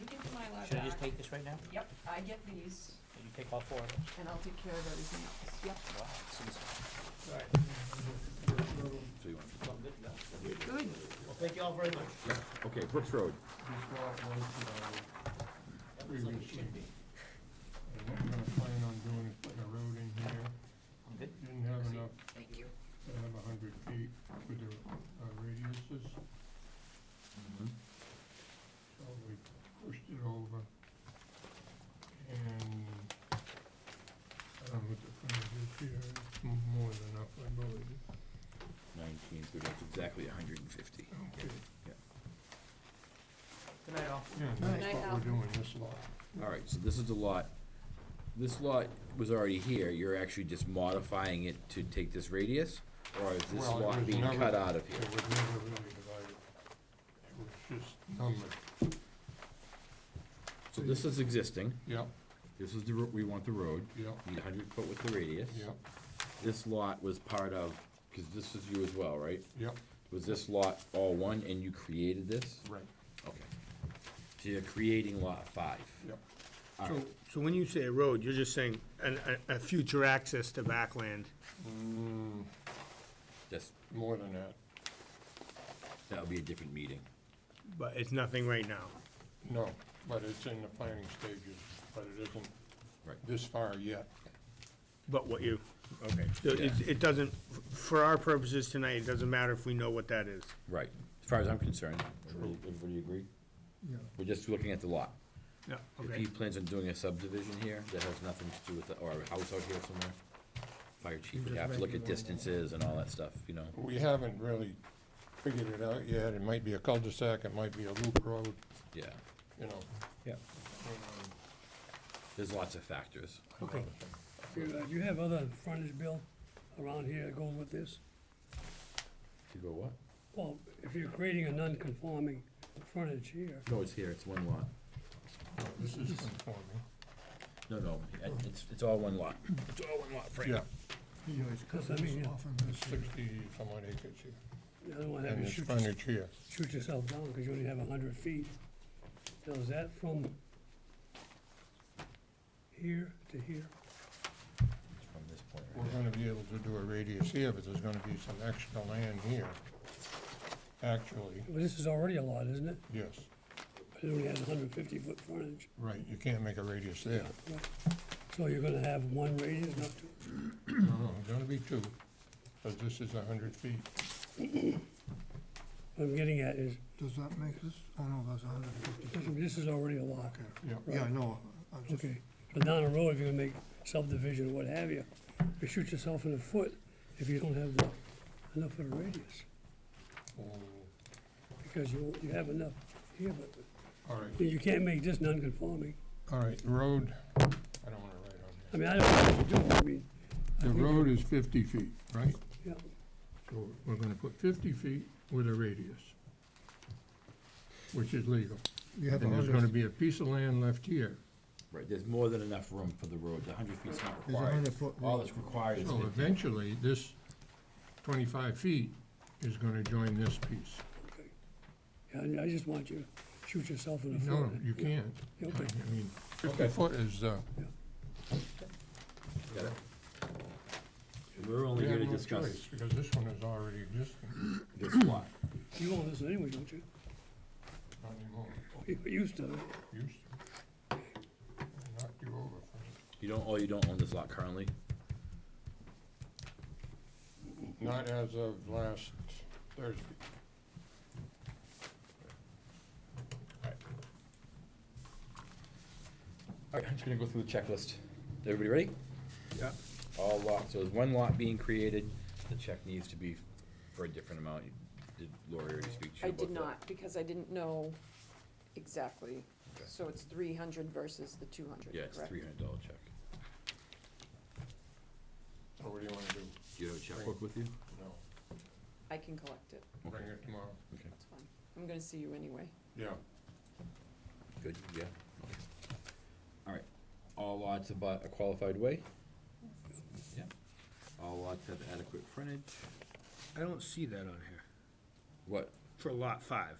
far Should I just back. take this right now? Yep, I get these You take all four of those? and I'll take care of everything else. Yep, Wow, it's insane. So you want, good. Well, thank you all very much. okay, Brooks Road. That was like it should be. And what we're gonna plan on doing is putting a road in here. I'm good. Didn't have enough Thank you. to have a hundred feet for the uh, radiuses, so we pushed it over. And I don't know what the frontage is here, it's more than enough, I believe. Nineteen, so that's exactly hundred and fifty. Okay, Yeah. Good night, all. yeah, Night, that's what Al. we're doing this lot. All right, so this is the lot, this lot was already here, you're actually just modifying it to take this radius? Or is this Well, it lot was being never- cut out of here? It was never really divided. It was just numbered. So this is existing, Yep, this is the, ro- we want the road, yep, need hundred foot with the radius. yep, This lot was part of, because this is you as well, right? yep. Was this lot all one and you created this? Right. Okay. So you're creating lot five? Yep. All So, right. so when you say a road, you're just saying an, a, a future access to backland. That's, More than that. that'll be a different meeting. But it's nothing right now. No, but it's in the planning stages, but it isn't Right. this far yet. But what you, okay, so it, Yeah. it doesn't, for our purposes tonight, it doesn't matter if we know what that is. Right. As far as I'm concerned, everybody everybody agree? Yeah. We're just looking at the lot. Yeah, If okay. he plans on doing a subdivision here, that has nothing to do with, the- or a house out here somewhere, fire chief would have to look at distances and all that stuff, you know? We haven't really figured it out yet. It might be a cul-de-sac, it might be a loop road, Yeah. you know. Um, Yeah. There's lots of factors. Okay. Do you- do Uh, you have other frontage, Bill, around here that goes with this? To go what? Well, if you're creating a non-conforming frontage here, No, it's here, it's one lot. This is conforming. No, no, it's, it's all one lot. It's all one lot, Frank. Yeah, because I mean, you there's sixty some odd acres here. you don't want to have And you it's shoot, your- frontage here. shoot yourself down because you only have 100 feet. So is that from here to here? It's From this point, right? We're gonna be able to do a radius here, but there's gonna be some extra land here. Actually, Well, this is already a lot, isn't it? yes, But it only has 150-foot frontage. right, you can't make a radius there. So you're going to have one radius, not two? No, there's Oh, gonna be two, but this is a hundred feet. What I'm getting at is, Does that make this, oh no, that's hundred and fifty. this is already a lot. Yeah. Yeah, no, I'm just, Okay, but down the road, if you're gonna make subdivision or what have you, you shoot yourself in the foot if you don't have the- enough of a radius, Oh, because you, you have enough here, but All right, you can't make this non-conforming. all right, the road, I don't wanna write on I mean, I don't know what to do, I mean, that. The road is fifty feet, right? yeah, So we're gonna put fifty feet with a radius, which is legal. you have And there's gonna hundred, be a piece of land left here. Right, there's more than enough room for the road, the hundred feet's not There's a required. 100-foot All road. that's required is So fifty. eventually, this twenty-five feet is gonna join this piece. okay. Yeah, I I just want you to shoot yourself in the No, foot. you can't. I Okay. mean, fifty foot is, uh, Got it. We're only we here have to no discuss choice, because this one is already existing, this lot. You own this one anyway, don't you? not anymore, You used to, used to. I Knocked you over for it. You don't, oh, you don't own this lot currently? Not as of last Thursday. All right, I'm just gonna go through the checklist. Everybody ready? Yeah. All lots, so there's one lot being created, the check needs to be for a different amount. Did Lori already speak to I you about that? did not, because I didn't know exactly. Okay. So it's three hundred versus the two hundred, Yeah, it's correct? three hundred dollar check. So what do you want to do? Do you have a checkbook with you? No, I can collect it, bring it tomorrow. Okay, it's fine. I'm gonna see you anyway. Yeah. good, yeah. Okay. All right, all lots about a qualified way? Yeah. All lots have adequate frontage? I don't see that on here, What? for lot five.